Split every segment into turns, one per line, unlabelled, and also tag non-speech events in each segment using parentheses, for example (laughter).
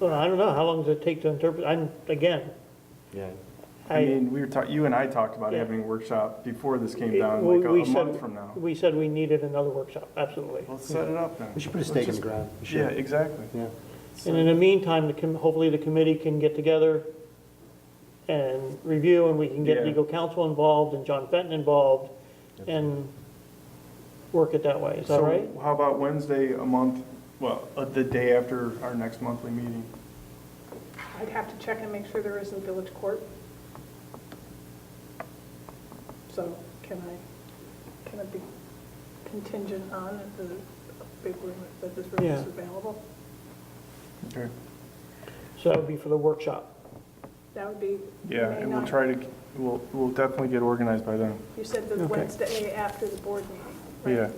Well, I don't know, how long does it take to interpret, I'm, again,
Yeah.
I
I.
mean, we were talking, you and I talked about
Yeah.
having a workshop before this came down,
we-
like a
we
a
said-
month from now.
We said we needed another workshop, absolutely.
Well, set it up then.
We should put a stake in the
Let's
ground. We
just- Yeah,
should.
exactly.
Yeah.
And in the meantime, the com- hopefully the committee can get together and review, and we can get
Yeah.
legal counsel involved and John Fenton involved, and work it that way, is that
So
right?
How about Wednesday, a month, well, uh, the day after our next monthly meeting?
I'd have to check and make sure there isn't village court. So can I, can it be contingent on the big room, that this room
Yeah.
is available?
Okay.
So that would be for the workshop.
That would be.
Yeah,
May
and we'll
ninth.
try to, we'll, we'll definitely get organized by then.
You said the
Okay.
Wednesday after the board meeting,
Yeah.
right?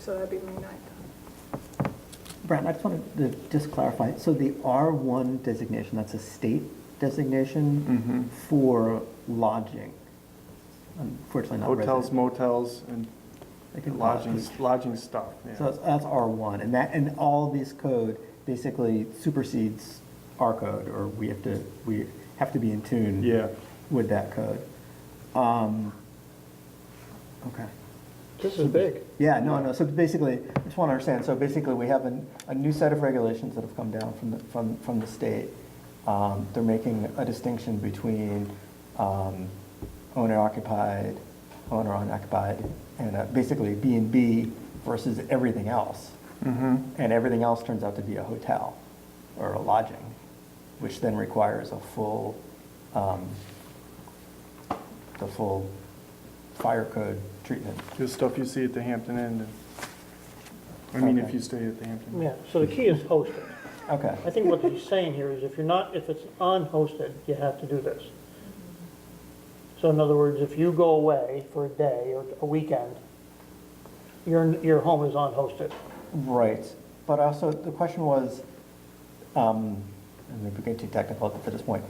So that'd be May 9th.
Brian, I just wanted to just clarify, so the R1 designation, that's a state
Mm-hmm.
designation for lodging? Unfortunately not
Hotels,
resident.
motels, and
They can call it-
lodging, lodging stuff, yeah.
So that's- that's R1, and that, and all this code basically supersedes our code, or we have to, we have to be in tune
Yeah.
with that code. Um, Okay.
This is big.
Yeah, no, no, so basically, I just want to understand, so basically, we have a, a new set of regulations that have come down from the, from, from the state. Um, They're making a distinction between um, owner-occupied, owner-unoccupied, and uh, basically B and B versus everything else.
Mm-hmm.
And everything else turns out to be a hotel or a lodging, which then requires a full, um, the full fire code treatment.
The stuff you see at the Hampton Inn, and- I mean, if
Okay.
you stay at the Hampton. Inn.
Yeah, so the key is hosted.
Okay.
I think what he's saying here is if you're not, if it's unhosted, you have to do this. So in other words, if you go away for a day or a weekend, your, your home is unhosted.
Right, but also, the question was, um, and maybe we're getting too technical at this point,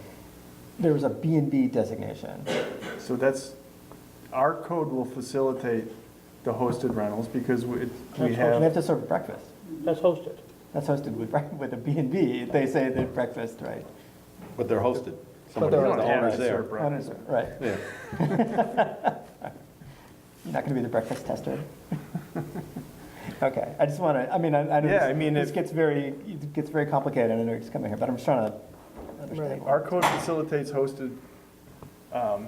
there was a B and B designation.
So that's, our code will facilitate the hosted rentals because we we
That's
We have
have,
to serve breakfast,
That's hosted.
that's hosted with, (laughs) break- with a B and B, they say that breakfast, right?
But they're hosted.
But
Somebody,
they're
you
the
don't have
owner's
to serve
there.
breakfast.
Owners, Right,
Yeah.
you're not gonna be the breakfast tester? (laughs) Okay, I just wanna, I mean, I, I know
Yeah, I
this-
mean,
this
if-
gets very, it gets very complicated, I know it's coming here, but I'm just trying to understand.
Our code facilitates hosted, um,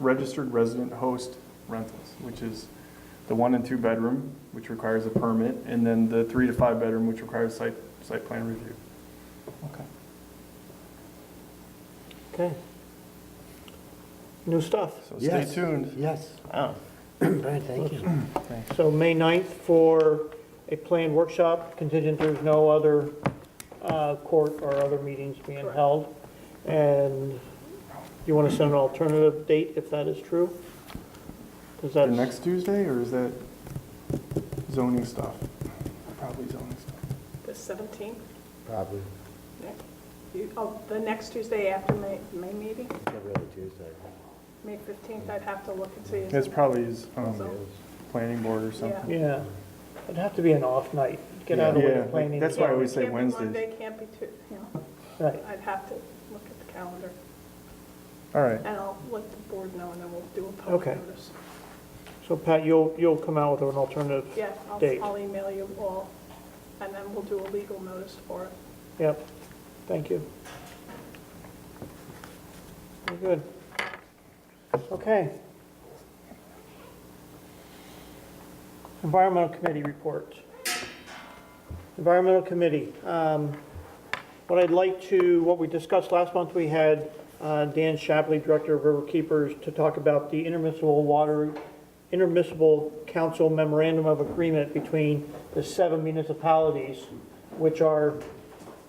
registered resident host rentals, which is the one and two bedroom, which requires a permit, and then the three to five bedroom, which requires site, site plan review.
Okay.
Okay. New stuff.
So stay tuned.
Yes.
Oh,
Brian, thank you.
So May 9th for a planned workshop, contingent there's no other uh, court or other meetings being held. And you want to set an alternative date if that is true? Because
The
that's.
next Tuesday, or is that zoning stuff? Probably zoning stuff.
The 17th,
Probably
Nick? You- oh, the next Tuesday after May, May meeting,
every other Tuesday.
May 15th, I'd have to look and see.
It's probably, his,
So-
um, planning board or
Yeah.
something.
Yeah, it'd have to be an off night, get out of the way
Yeah,
of planning.
that's why I always
Can't
say
be
Wednesdays.
Monday, can't be Tu, you know,
Right,
I'd have to look at the calendar.
All right.
And I'll let the board know, and then we'll do a public
Okay.
notice.
so Pat, you'll, you'll come out with an alternative?
Yeah, I'll,
Date.
I'll email you all, and then we'll do a legal notice for it.
Yep, thank you. Very good. Okay. Environmental Committee report. Environmental Committee, um, what I'd like to, what we discussed last month, we had uh, Dan Shapley, Director of River Keepers, to talk about the intermunicipal water, intermunicipal council memorandum of agreement between the seven municipalities, which are,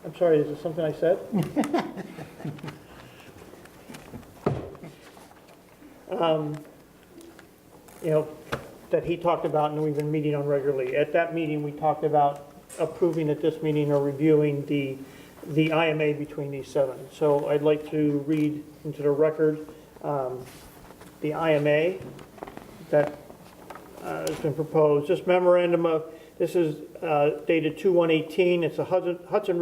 I'm sorry, is it something I said? Um, You know, that he talked about and we've been meeting on regularly. At that meeting, we talked about approving at this meeting or reviewing the, the IMA between these seven. So I'd like to read into the record um, the IMA that uh, has been proposed. This memorandum of, this is uh, dated 2/118. It's a Hudson Hudson